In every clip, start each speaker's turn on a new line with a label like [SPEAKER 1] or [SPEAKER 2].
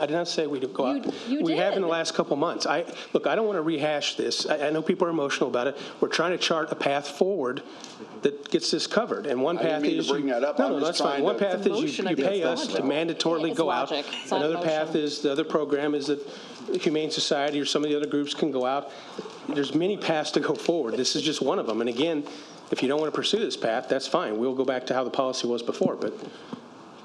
[SPEAKER 1] I did not say we'd go out.
[SPEAKER 2] You- you
[SPEAKER 1] We have in
[SPEAKER 2] did.
[SPEAKER 1] the last couple months. I, look, I don't want to rehash this. I, I know people are emotional about it. We're trying to chart a path forward that gets this covevered, and one
[SPEAKER 3] I didn't
[SPEAKER 1] path
[SPEAKER 3] mean to
[SPEAKER 1] is. you-
[SPEAKER 3] bring that up.
[SPEAKER 1] No,
[SPEAKER 3] I'm
[SPEAKER 1] no,
[SPEAKER 3] just
[SPEAKER 1] that's fine.
[SPEAKER 3] trying
[SPEAKER 1] One
[SPEAKER 3] to-
[SPEAKER 1] path is you-
[SPEAKER 2] Motion
[SPEAKER 1] you pay us to
[SPEAKER 2] against logic.
[SPEAKER 1] mandatorily
[SPEAKER 2] It's
[SPEAKER 1] go out.
[SPEAKER 2] logic. It's not
[SPEAKER 1] Another path
[SPEAKER 2] motion.
[SPEAKER 1] is, the other program is that the Humane Society or some of the other groups can go out. There's many paths to go forward. This is just one of them. And again, if you don't want to pursue this path, that's fine. We'll go back to how the policy was before, but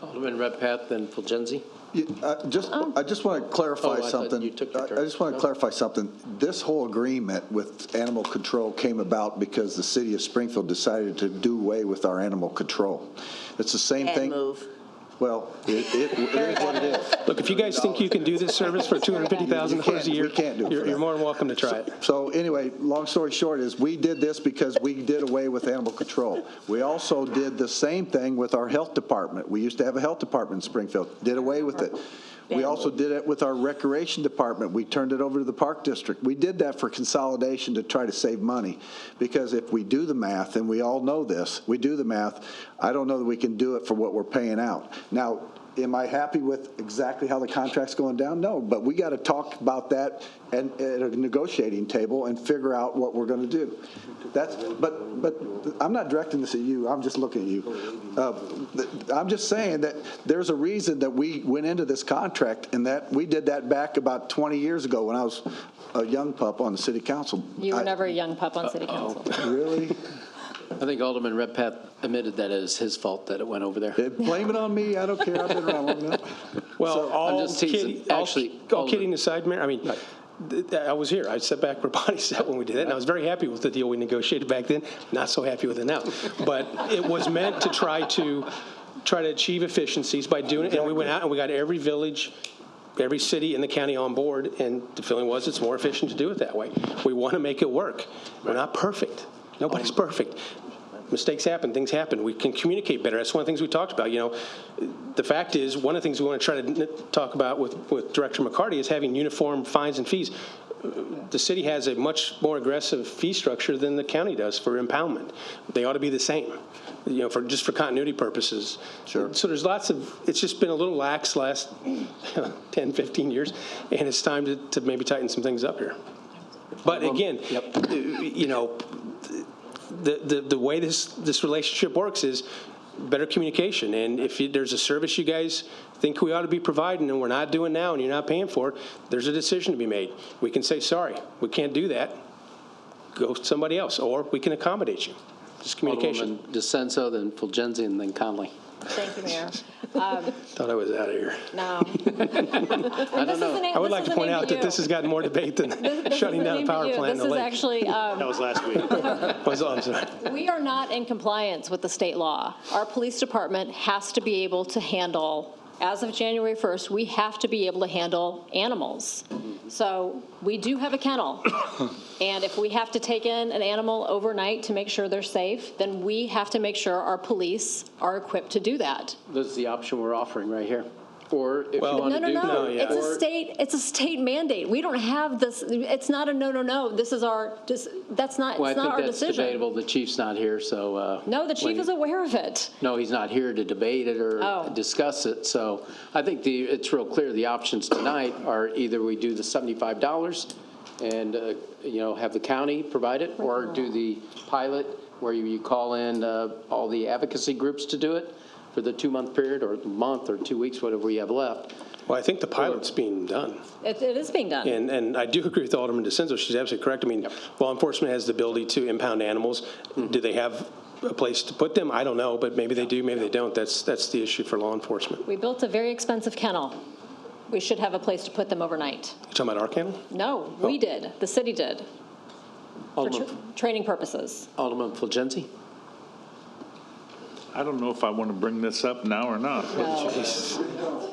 [SPEAKER 4] Alderman Redpath and Fulgenzi.
[SPEAKER 5] Yeah, I Just, I just want to
[SPEAKER 4] Oh, I
[SPEAKER 5] clarify
[SPEAKER 4] thought
[SPEAKER 5] something.
[SPEAKER 4] you took your
[SPEAKER 5] I-
[SPEAKER 4] turn.
[SPEAKER 5] I just want to clarify something. This whole agreement with animal control came about because the city of Springfield decided to do away with our animal control. It's the same
[SPEAKER 6] And
[SPEAKER 5] thing.
[SPEAKER 6] move.
[SPEAKER 5] Well, it it- it is what it is.
[SPEAKER 1] Look, if you guys think you can do this service for $250,000 a
[SPEAKER 5] We
[SPEAKER 1] year,
[SPEAKER 5] can't do it for
[SPEAKER 1] you're
[SPEAKER 5] that.
[SPEAKER 1] you're more than welcome to try it.
[SPEAKER 5] So anyway, long story short is, we did this because we did away with animal control. We also did the same thing with our health department. We used to have a health department in Springfield, did away with it. We also did it with our recreation department. We turned it over to the park district. We did that for consolidation to try to save money, because if we do the math, and we all know this, we do the math, I don't know that we can do it for what we're paying out. Now, Am I happy with exactly how the contract's going down? No, but we got to talk about that and at a negotiating table and figure out what we're going to do. That's, but, but I'm not directing this at you, I'm just looking at you. Uh, th- I'm just saying that there's a reason that we went into this contract and that, we did that back about 20 years ago when I was a young pup on the city council.
[SPEAKER 2] You were
[SPEAKER 5] I-
[SPEAKER 2] never a young pup on city council.
[SPEAKER 5] Really?
[SPEAKER 4] I think Alderman Redpath admitted that it is his fault that it went over there.
[SPEAKER 5] Blame it on me, I don't care, I've been around long enough.
[SPEAKER 1] Well, all
[SPEAKER 4] just teasing.
[SPEAKER 1] kidding, all
[SPEAKER 4] Actually,
[SPEAKER 1] all
[SPEAKER 4] Alderman-
[SPEAKER 1] kidding aside, Mayor, I mean, th- th- I was here. I sat back where Bonnie sat when we did it, and I was very happy with the deal we negotiated back then, not so happy with it now. But it was meant to try to, try to achieve efficiencies by doing it, and we went out and we got every village, every city in the county on board, and the feeling was it's more efficient to do it that way. We want to make it work. We're not perfect. Nobody's perfect. Mistakes happen, things happen. We can communicate better. That's one of the things we talked about, you know. The fact is, one of the things we want to try to n- talk about with, with Director McCarty is having uniform fines and fees. The city has a much more aggressive fee structure than the county does for impoundment. They ought to be the same, you know, for, just for continuity purposes.
[SPEAKER 5] Sure.
[SPEAKER 1] So there's lots of, it's just been a little lax last 10, 15 years, and it's time to, to maybe tighten some things up here. But again, you know, the, the, the way this, this relationship works is better communication. And if you- there's a service you guys think we ought to be providing and we're not doing now and you're not paying for it, there's a decision to be made. We can say, sorry, we can't do that. Go to somebody else, or we can accommodate you. Just communication.
[SPEAKER 4] Alderman DeSenza, then Fulgenzi, and then Conley.
[SPEAKER 2] Thank you, Mayor.
[SPEAKER 1] Thought I was out of here.
[SPEAKER 2] No. I
[SPEAKER 4] don't know.
[SPEAKER 1] I would like to point out that this has gotten more debate than shutting down a power plant in
[SPEAKER 2] This
[SPEAKER 1] the
[SPEAKER 2] is
[SPEAKER 1] lake.
[SPEAKER 2] actually, um,
[SPEAKER 7] That was last week.
[SPEAKER 1] Was- I'm sorry.
[SPEAKER 2] we are not in compliance with the state law. Our police department has to be able to handle, as of January 1st, we have to be able to handle animals. So we do have a kennel. And if we have to take in an animal overnight to make sure they're safe, then we have to make sure our police are equipped to do that.
[SPEAKER 4] This is the option we're offering right here. Or if you
[SPEAKER 1] Well-
[SPEAKER 4] want
[SPEAKER 2] No,
[SPEAKER 4] to
[SPEAKER 2] no,
[SPEAKER 4] do.
[SPEAKER 2] no.
[SPEAKER 1] yeah.
[SPEAKER 2] It's a state, it's a state mandate. We don't have this, it's not a no, no, no. This is our, this, that's not,
[SPEAKER 4] Well, I
[SPEAKER 2] it's not
[SPEAKER 4] think
[SPEAKER 2] our
[SPEAKER 4] that's
[SPEAKER 2] decision.
[SPEAKER 4] debatable. The chief's not here, so. uh,
[SPEAKER 2] No, the
[SPEAKER 4] when-
[SPEAKER 2] chief is aware of it.
[SPEAKER 4] No, he's not here to debate it or
[SPEAKER 2] Oh.
[SPEAKER 4] discuss it. So I think the, it's real clear, the options tonight are either we do the $75 and, uh, you know, have the county provide it, or do the pilot where you- you call in uh, all the advocacy groups to do it for the two-month period, or month, or two weeks, whatever you have left.
[SPEAKER 1] Well, I think the pilot's being done.
[SPEAKER 2] It, it is being done.
[SPEAKER 1] And, and I do agree with Alderman DeSenza, she's absolutely correct. I mean, law enforcement has the ability to impound animals. Do they have a place to put them? I don't know, but maybe they do, maybe they don't. That's, that's the issue for law enforcement.
[SPEAKER 2] We built a very expensive kennel. We should have a place to put them overnight.
[SPEAKER 1] You talking about our kennel?
[SPEAKER 2] No, we
[SPEAKER 1] Oh.
[SPEAKER 2] did, the city did, for tr-
[SPEAKER 4] Alderman
[SPEAKER 2] training purposes.
[SPEAKER 4] Alderman Fulgenzi?
[SPEAKER 7] I don't know if I want to bring this up now or not,
[SPEAKER 2] No.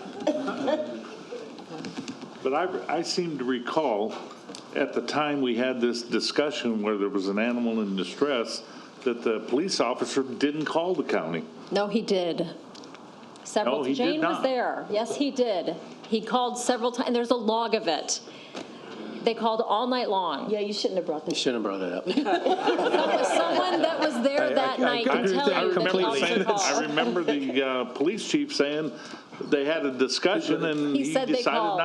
[SPEAKER 7] but I, I seem to recall at the time we had this discussion where there was an animal in distress, that the police officer didn't call the county.
[SPEAKER 2] No, he did. Several,
[SPEAKER 7] No, he did
[SPEAKER 2] Jane was
[SPEAKER 7] not.
[SPEAKER 2] there. Yes, he did. He called several times, and there's a log of it. They called all night long.
[SPEAKER 6] Yeah, you shouldn't have brought this.
[SPEAKER 4] Shouldn't have brought it up.
[SPEAKER 2] Someone- Someone that was there that
[SPEAKER 1] I
[SPEAKER 2] night
[SPEAKER 1] agree
[SPEAKER 2] can
[SPEAKER 1] with
[SPEAKER 2] tell
[SPEAKER 1] that
[SPEAKER 2] you that the
[SPEAKER 7] remember
[SPEAKER 1] completely.
[SPEAKER 2] officer
[SPEAKER 7] saying- I
[SPEAKER 2] called.
[SPEAKER 7] remember the uh, police chief saying they had a discussion and
[SPEAKER 2] He
[SPEAKER 7] he
[SPEAKER 2] said they
[SPEAKER 7] decided
[SPEAKER 2] called.
[SPEAKER 7] not